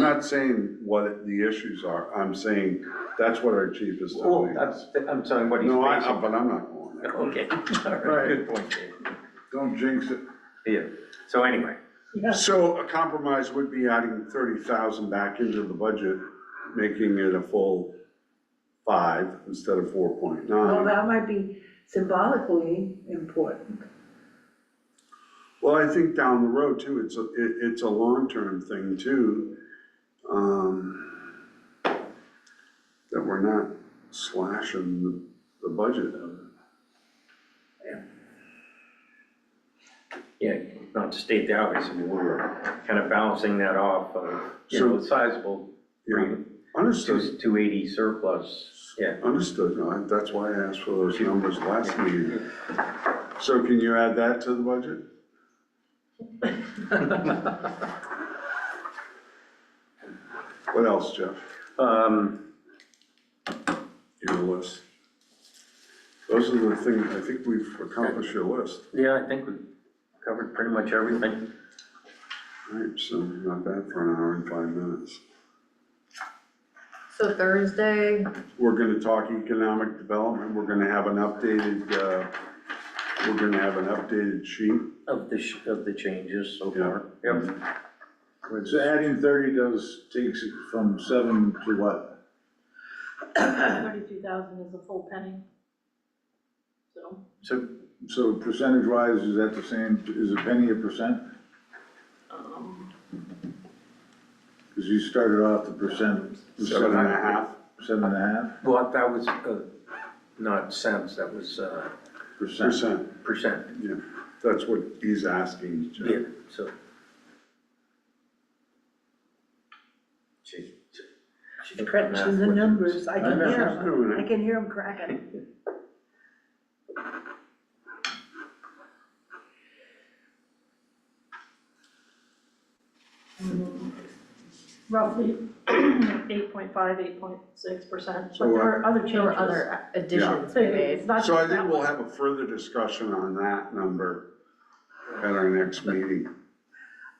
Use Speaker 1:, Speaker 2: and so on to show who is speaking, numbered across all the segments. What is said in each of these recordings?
Speaker 1: not saying what the issues are, I'm saying that's what our chief is
Speaker 2: Well,
Speaker 1: telling us.
Speaker 2: Oh, I'm, I'm telling what he's
Speaker 1: No, I, I-
Speaker 2: facing.
Speaker 1: but I'm not going there.
Speaker 2: Okay, all right, good point, Dave.
Speaker 1: Don't jinx it.
Speaker 2: Yeah, so anyway,
Speaker 1: So a compromise would be adding thirty thousand back into the budget, making it a full five instead of four point
Speaker 3: Well,
Speaker 1: nine.
Speaker 3: that might be symbolically important.
Speaker 1: Well, I think down the road too, it's, a it, it's a long-term thing too. um, That we're not slashing the, the budget of it.
Speaker 2: yeah, not to state the obvious, I mean, we're kind of balancing that off of, you
Speaker 1: So-
Speaker 2: know, sizable,
Speaker 1: Yeah,
Speaker 2: three,
Speaker 1: understood,
Speaker 2: two, two eighty surplus, yeah.
Speaker 1: understood, No, I- that's why I asked for those numbers last meeting. So can you add that to the budget? What else, Jeff,
Speaker 2: Um,
Speaker 1: your list? Those are the things, I think we've accomplished your list,
Speaker 2: yeah, I think we covered pretty much everything.
Speaker 1: right, so not bad for an hour and five minutes.
Speaker 4: So Thursday,
Speaker 1: We're gonna talk economic development, we're gonna have an updated, uh, we're gonna have an updated sheet.
Speaker 2: Of the, sh- of the changes so far.
Speaker 5: So adding thirty does, takes it from seven to what?
Speaker 6: Thirty-two thousand is a full penny. So,
Speaker 2: So,
Speaker 5: So percentage wise, is that the same, is a penny a percent?
Speaker 6: um,
Speaker 5: Because you started off the percent.
Speaker 1: Seven and a half.
Speaker 5: Seven and a half
Speaker 2: well, that was, uh, not cents, that was, uh,
Speaker 5: percent.
Speaker 1: Percent,
Speaker 2: percent,
Speaker 1: yeah, that's what he's asking, Jeff.
Speaker 2: yeah, so. She- she- she can come
Speaker 3: Crunching the
Speaker 2: out with-
Speaker 3: numbers, I can
Speaker 1: know,
Speaker 3: hear
Speaker 1: she's doing
Speaker 3: them, I
Speaker 1: it.
Speaker 3: can hear them cracking.
Speaker 6: roughly eight point five, eight point six percent, but there are other changes.
Speaker 4: there were other additions
Speaker 6: So
Speaker 4: we
Speaker 6: It's
Speaker 4: made.
Speaker 6: not
Speaker 1: So I
Speaker 6: just that
Speaker 1: think we'll
Speaker 6: one.
Speaker 1: have a further discussion on that number at our next meeting.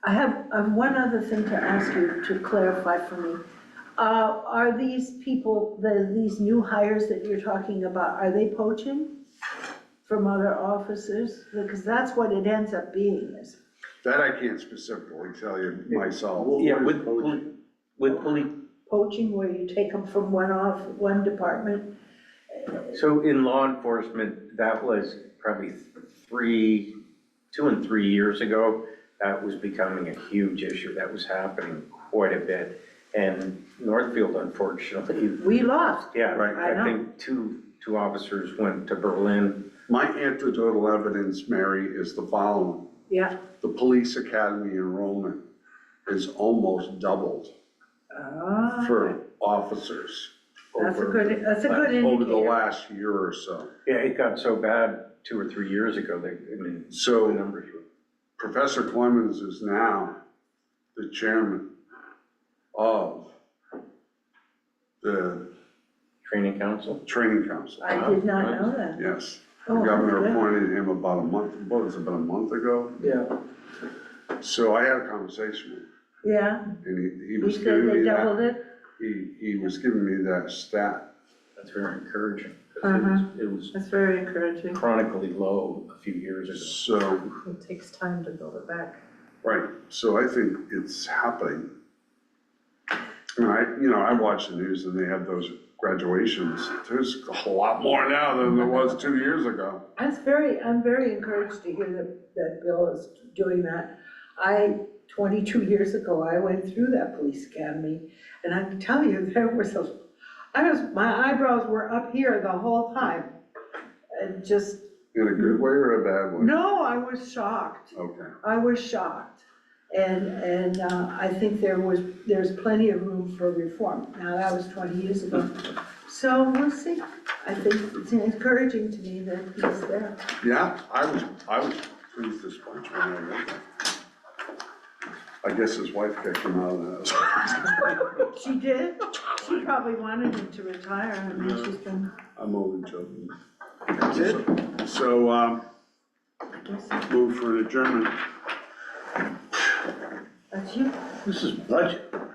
Speaker 3: I have, I have one other thing to ask you to clarify for me. Uh, are these people, the, these new hires that you're talking about, are they poaching from other officers? Because that's what it ends up being, is
Speaker 1: That I can't specifically tell you myself.
Speaker 2: Yeah, with, poli- with police,
Speaker 3: poaching where you take them from one off, one department.
Speaker 2: So in law enforcement, that was probably three, two and three years ago, that was becoming a huge issue, that was happening quite a bit. And Northfield unfortunately,
Speaker 3: We lost,
Speaker 2: yeah,
Speaker 1: Right.
Speaker 2: I think two, two officers went to Berlin.
Speaker 1: My anecdotal evidence, Mary, is the following.
Speaker 3: yeah.
Speaker 1: The police academy enrollment is almost doubled
Speaker 3: Ah,
Speaker 1: for officers
Speaker 3: That's a
Speaker 2: over-
Speaker 3: good, that's a good indicator.
Speaker 1: over the last year or so.
Speaker 2: Yeah, it got so bad two or three years ago, they, I mean, the
Speaker 1: So
Speaker 2: numbers were.
Speaker 1: Professor Clemens is now the chairman of the
Speaker 2: Training council?
Speaker 1: training council.
Speaker 3: I did not know that.
Speaker 1: Yes, the
Speaker 3: Oh,
Speaker 1: governor
Speaker 3: okay.
Speaker 1: appointed him about a month, what was it, about a month ago?
Speaker 2: Yeah.
Speaker 1: So I had a conversation
Speaker 3: Yeah,
Speaker 1: with him, and he, he
Speaker 3: you
Speaker 1: was
Speaker 3: said
Speaker 1: giving
Speaker 3: they
Speaker 1: me
Speaker 3: doubled
Speaker 1: that,
Speaker 3: it?
Speaker 1: he, he was giving me that stat.
Speaker 2: That's very encouraging, 'cause it was, it
Speaker 3: That's very encouraging.
Speaker 2: was chronically low a few years ago.
Speaker 1: So,
Speaker 4: It takes time to build it back.
Speaker 1: right, so I think it's happening. And I, you know, I watch the news and they have those graduations, there's a lot more now than there was two years ago.
Speaker 3: That's very, I'm very encouraged to hear that, that Bill is doing that. I, twenty-two years ago, I went through that police academy, and I can tell you, there were some, I was, my eyebrows were up here the whole time. And just,
Speaker 1: In a good way or a bad way?
Speaker 3: no, I was shocked.
Speaker 1: Okay,
Speaker 3: I was shocked. And, and uh, I think there was, there's plenty of room for reform. Now, that was 20 years ago. So we'll see. I think it's encouraging to me that he's there.
Speaker 1: yeah, I was, I was pleased this bunch when I read that. I guess his wife kicked him out of the house.
Speaker 3: She did. She probably wanted him to retire. I mean, she's been,
Speaker 1: I'm only joking.
Speaker 3: That's
Speaker 1: So, um, move for an adjournment.
Speaker 3: that's you.
Speaker 5: This is budget.